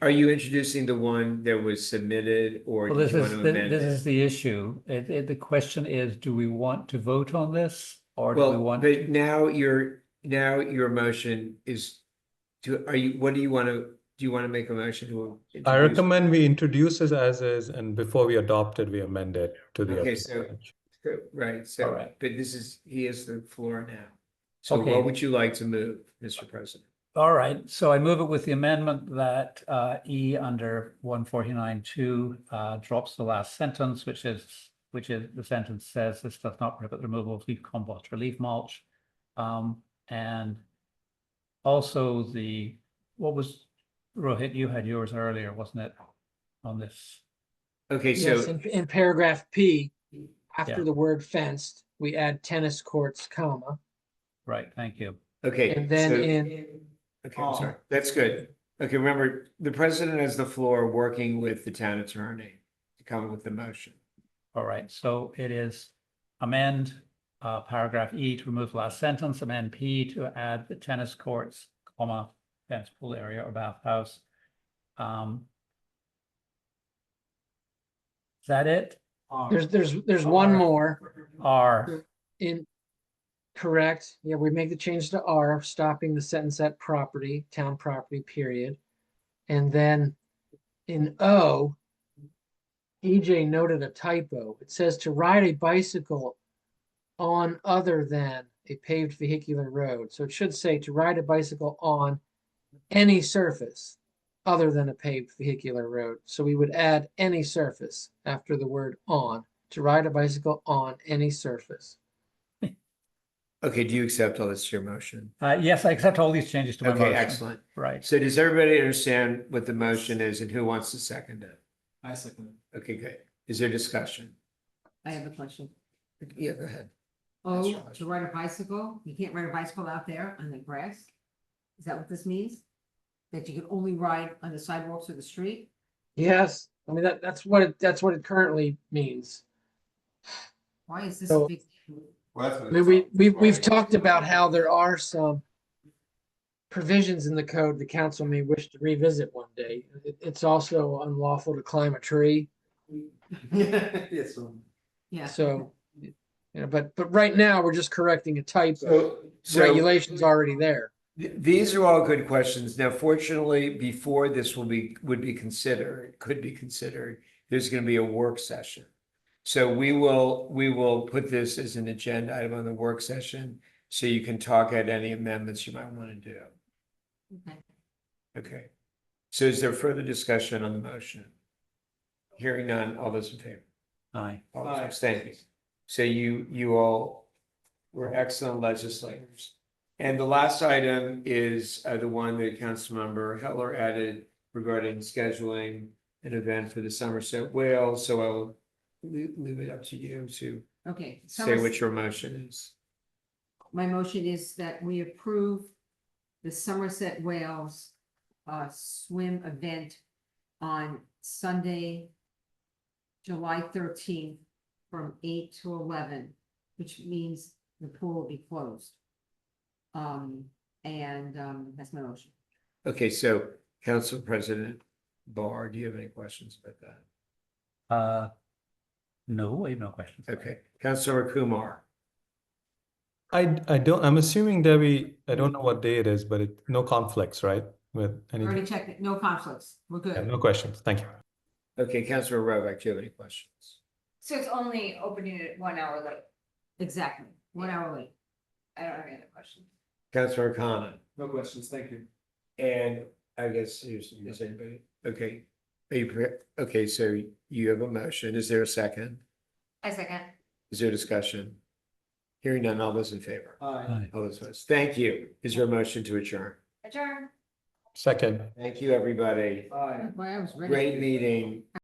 Are you introducing the one that was submitted or Well, did this you want is, to thi- amend this it? is the issue. It, it, the question is, do we want to vote on this? Or do we Well, want, but now your, now your motion is to, are you, what do you want to, do you want to make a motion to? I introduce- recommend we introduce it as is, and before we adopt it, we amend it to the. Okay, other so- branch. Right, so, Alright. but this is, he has the floor now. So Okay. what would you like to move, Mr. President? all right, so I move it with the amendment that uh, E under one forty-nine two uh, drops the last sentence, which is, which is, the sentence says, this does not prohibit the removal of leaf compost or leaf mulch. Um, and also the, what was, Rohit, you had yours earlier, wasn't it? On this? Okay, Yes, so, in, in paragraph P, Yeah. after the word fenced, we add tennis courts, comma, Right, thank you. okay. and then so- in, Okay, I'm sorry. That's good. Okay, remember, the president has the floor, working with the town attorney to come with the motion. All right, so it is amend uh paragraph E to remove last sentence, amend P to add the tennis courts, comma, fence pool area or bathhouse. Um. Is that it? there's, there's, there's one Are. more R, in, correct, yeah, we make the change to R, stopping the sentence at property, town property, period. And then in O, EJ noted a typo. It says to ride a bicycle on other than a paved vehicular road. So it should say to ride a bicycle on any surface other than a paved vehicular road. So we would add any surface after the word on, to ride a bicycle on any surface. Okay, do you accept all this, your motion? uh, yes, I accept all these changes to my Okay, motion. excellent. Right, So does everybody understand what the motion is and who wants to second it? I second. Okay, good. Is there discussion? I have a question. Yeah, go ahead. Oh, Josh. to ride a bicycle, you can't ride a bicycle out there on the grass? Is that what this means? That you can only ride on the sidewalks or the street? Yes, I mean, that, that's what, it that's what it currently means. Why is this a So- big? Well, I mean, we, we, we've talked about how there are some provisions in the code the council may wish to revisit one day. It- It's also unlawful to climb a tree, Yes. um, Yeah. so, you know, but, but right now, we're just correcting a typo. So, so Regulation's already there. th- these are all good questions. Now fortunately, before this will be, would be considered, could be considered, there's going to be a work session. So we will, we will put this as an agenda item on the work session, so you can talk at any amendments you might want to do. okay. Okay. So is there further discussion on the motion? Hearing none, all those in favor? aye. All those abstaining. So you, you all were excellent legislators. And the last item is uh, the one that Councilmember Heller added regarding scheduling an event for the Somerset Whale. So I will lea- leave it up to you to Okay. say Somerset- what your motion is. My motion is that we approve the Somerset Wales uh, swim event on Sunday, July thirteenth, from eight to eleven, which means the pool will be closed. Um, and, um, that's my motion. Okay, so Council President Barr, do you have any questions about that? Uh, no, I have no questions. Okay, Councilmember Kumar. I, I don't, I'm assuming Debbie, I don't know what day it is, but it, no conflicts, right? With I Already anything, checked it, no conflicts, we're Yeah, good. no questions, thank you. Okay, Councilor Rovak, do you have any questions? So it's only opening at one hour late. Exactly, one hour late. I don't have any other questions. Councilor Khanna, No questions, thank you. and I guess, is, is anybody, okay. Are you, pre- okay, so you have a motion. Is there a second? I second. Is there discussion? Hearing none, all those in favor? Aye. Aye. All those opposed. Thank you. Is there a motion to adjourn? Adjourn. Second. Thank you, everybody. Aye. Boy, I was ready. Great meeting.